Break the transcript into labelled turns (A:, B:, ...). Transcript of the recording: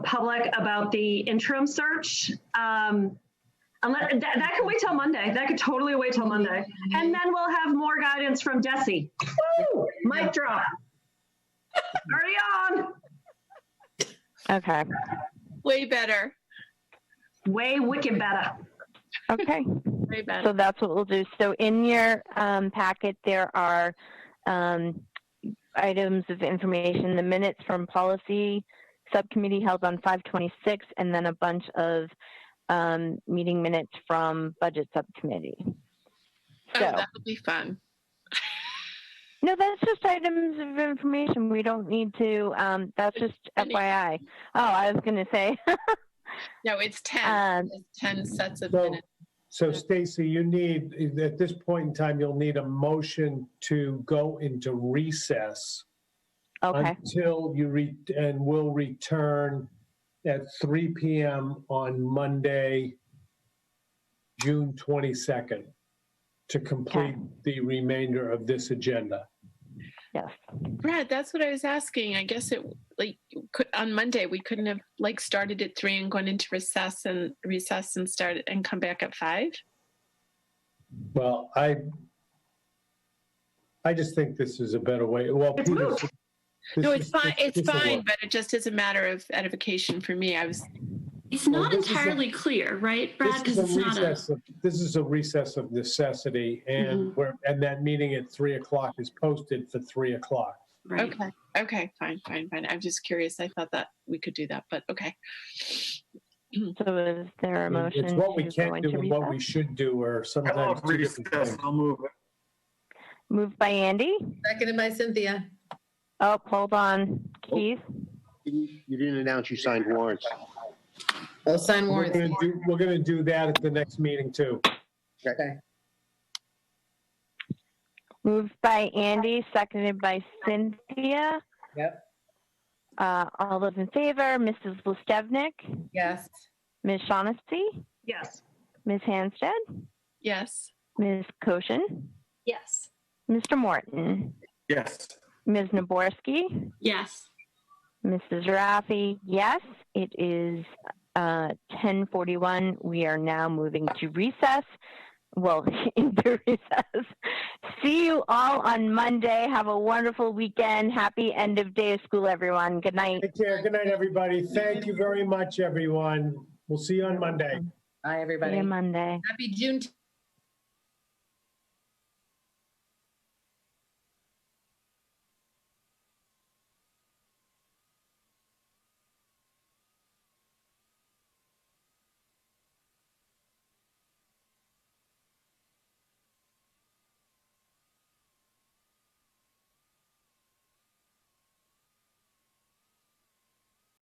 A: public about the interim search. Um, unless, that, that can wait till Monday. That could totally wait till Monday. And then we'll have more guidance from Desi. Woo! Mic drop. Already on.
B: Okay.
C: Way better.
A: Way wicked better.
B: Okay.
C: Way better.
B: So that's what we'll do. So in your um, packet, there are um, items of information, the minutes from policy subcommittee held on 526, and then a bunch of um, meeting minutes from budget subcommittee.
C: Oh,
B: So,
C: that'll be fun.
B: no, that's just items of information. We don't need to, um, that's just
C: Any-
B: FYI. Oh, I was going to say,
C: No, it's 10.
B: um,
C: It's 10 sets of
D: So-
C: minutes.
D: So Stacy, you need, at this point in time, you'll need a motion to go into recess
B: okay.
D: until you, re and will return at 3 PM on Monday, June 22nd, to complete the remainder of this agenda.
B: Yes.
C: Brad, that's what I was asking. I guess it like could, on Monday we couldn't have like started at three and gone into recess and recess and started and come back at five.
D: Well, I, I just think this is a better way, well.
A: It's
D: Peter,
A: moot.
D: this
C: No,
D: is-
C: it's fine.
D: this-
C: It's
D: this'll work.
C: fine, but it just is a matter of edification for me. I was
E: It's
D: Well,
E: not
D: this is a-
E: entirely clear, right, Brad?
D: This
E: Because
D: is a
E: it's not a,
D: recess of- This is a recess of necessity,
E: Mm-hmm.
D: and we're, and that meeting at three o'clock is posted for three o'clock.
E: right.
C: okay. Okay, fine, fine, fine. I'm just curious. I thought that we could do that, but okay.
B: So is there a motion?
D: It's what we
B: to go
D: can
B: into
D: do and what we
B: recess?
D: should do, or
F: I
D: sometimes.
F: love
D: two different
F: recess.
D: things.
F: I'll move it.
B: Moved by Andy.
G: Seconded by Cynthia.
B: Oh, hold on, Keith.
H: You you didn't announce you signed warrants.
G: I'll sign
D: We're
G: warrants.
D: gonna do, we're gonna do that at the next meeting too.
G: Okay.
B: Moved by Andy, seconded by Cynthia.
G: Yep.
B: Uh, all those in favor, Mrs. Listevnik,
G: Yes.
B: Ms. Shaughnessy,
A: Yes.
B: Ms. Hanstead,
C: Yes.
B: Ms. Koshin,
I: Yes.
B: Mr. Morton,
F: Yes.
B: Ms. Naborski,
E: Yes.
B: Mrs. Raffi. Yes, it is uh, 10:41. We are now moving to recess. Well, into recess. See you all on Monday. Have a wonderful weekend. Happy end of day of school, everyone. Good night.
D: Take care. Good night, everybody. Thank you very much, everyone. We'll see you on Monday.
G: Bye,
B: See
G: everybody.
B: you Monday.
G: Happy Juneteenth.